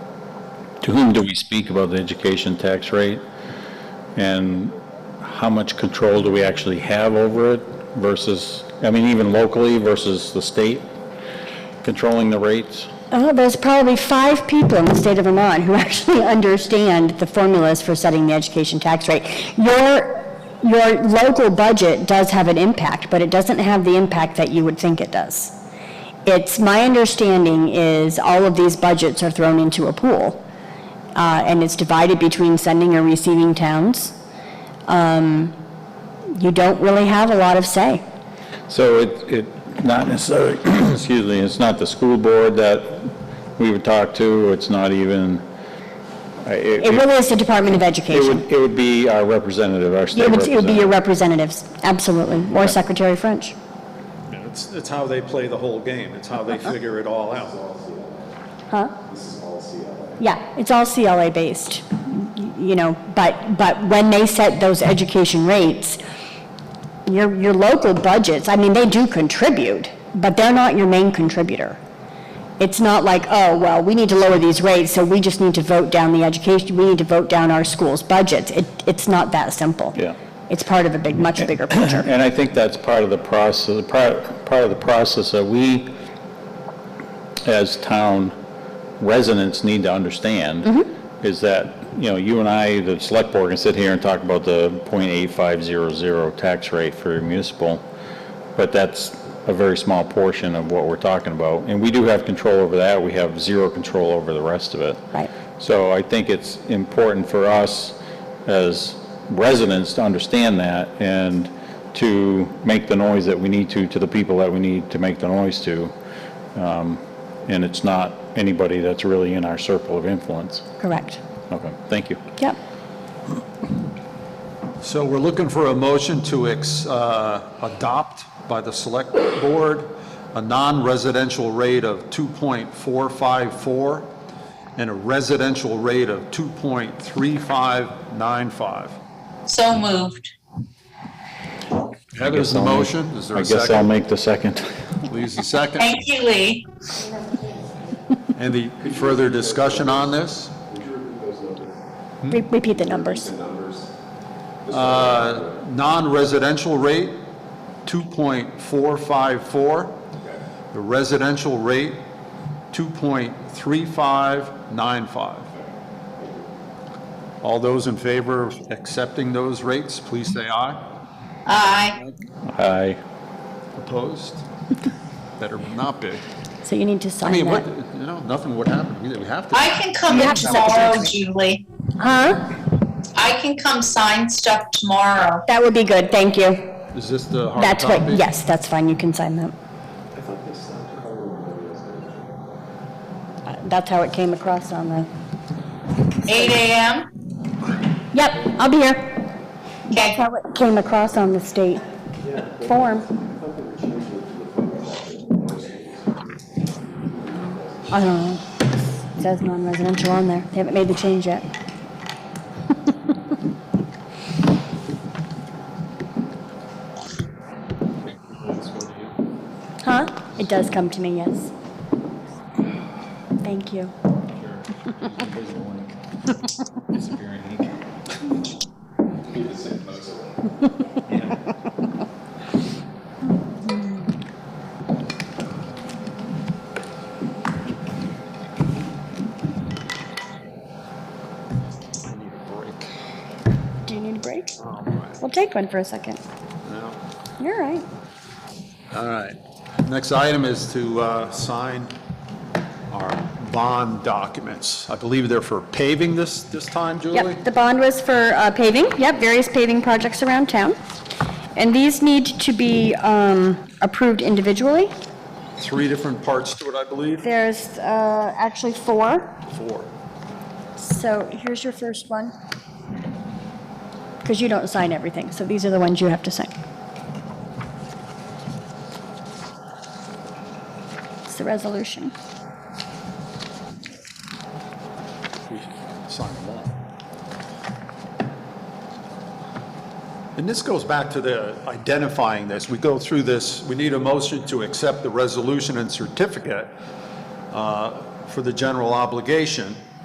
To whom do we speak about the education tax rate? And how much control do we actually have over it versus, I mean, even locally versus the state controlling the rates? Oh, there's probably five people in the state of Vermont who actually understand the formulas for setting the education tax rate. Your, your local budget does have an impact, but it doesn't have the impact that you would think it does. It's, my understanding is all of these budgets are thrown into a pool, uh, and it's divided between sending or receiving towns. Um, You don't really have a lot of say. So it, it, not necessarily, excuse me, it's not the school board that we would talk to, it's not even, I- It it, really is the Department of it Education. would, it would be our representative, our state It would, it would be your representative. representatives, absolutely, or Secretary French. It's, it's how they play the whole game. It's how they figure it all out. Yeah, it's all CLA-based, you know, but, but when they set those education rates, your, your local budgets, I mean, they do contribute, but they're not your main contributor. It's not like, oh, well, we need to lower these rates, so we just need to vote down the education, we need to vote down our schools' budgets. It, it's not that simple. Yeah. It's part of a big, much bigger picture. And I think that's part of the process, part, part of the process that we, as town residents, need to understand, is that, you know, you and I, the select board, can sit here and talk about the .8500 tax rate for municipal, but that's a very small portion of what we're talking about. And we do have control over that, we have zero control over the rest of it. Right. So I think it's important for us as residents to understand that and to make the noise that we need to, to the people that we need to make the noise to. Um, And it's not anybody that's really in our circle of influence. Correct. Okay, thank you. Yep. So we're looking for a motion to ex- uh, adopt by the Select Board a non-residential rate of 2.454 and a residential rate of 2.3595. So moved. Heather's the motion. Is there I a guess I'll second? make the second. Lee's the second. Thank you, Lee. Any further discussion on this? Re- Repeat the numbers. Non-residential rate, 2.454. The residential rate, 2.3595. All those in favor of accepting those rates, please say aye. Aye. Aye. Opposed? Better not be. So you need to I sign that. mean, what, you know, nothing would happen. We we have to. I can come You in have to second tomorrow, it. Julie. Huh? I can come sign stuff tomorrow. That would be good, thank you. Is this the hard That's what, Oh, copy? yes, that's fine, you can sign that. Uh, That's how it came across on the, 8 AM? yep, I'll be here. Okay. How it came across on the state form. I don't know, it says non-residential on there, they haven't made the change yet. Huh? It does come to me, yes. Thank you. Do you need a break? We'll take one for a second. You're all right. All right. Next item is to uh, sign our bond documents. I believe they're for paving this, this time, Julie? Yep, the bond was for uh, paving, yep, various paving projects around town. And these need to be um, approved individually. Three different parts to it, I believe? There's uh, actually four, Four. so here's your first one. Because you don't sign everything, so these are the ones you have to sign. It's the resolution. We Sign them all. And this goes back to the identifying this. We go through this, we need a motion to accept the resolution and certificate uh, for the general obligation.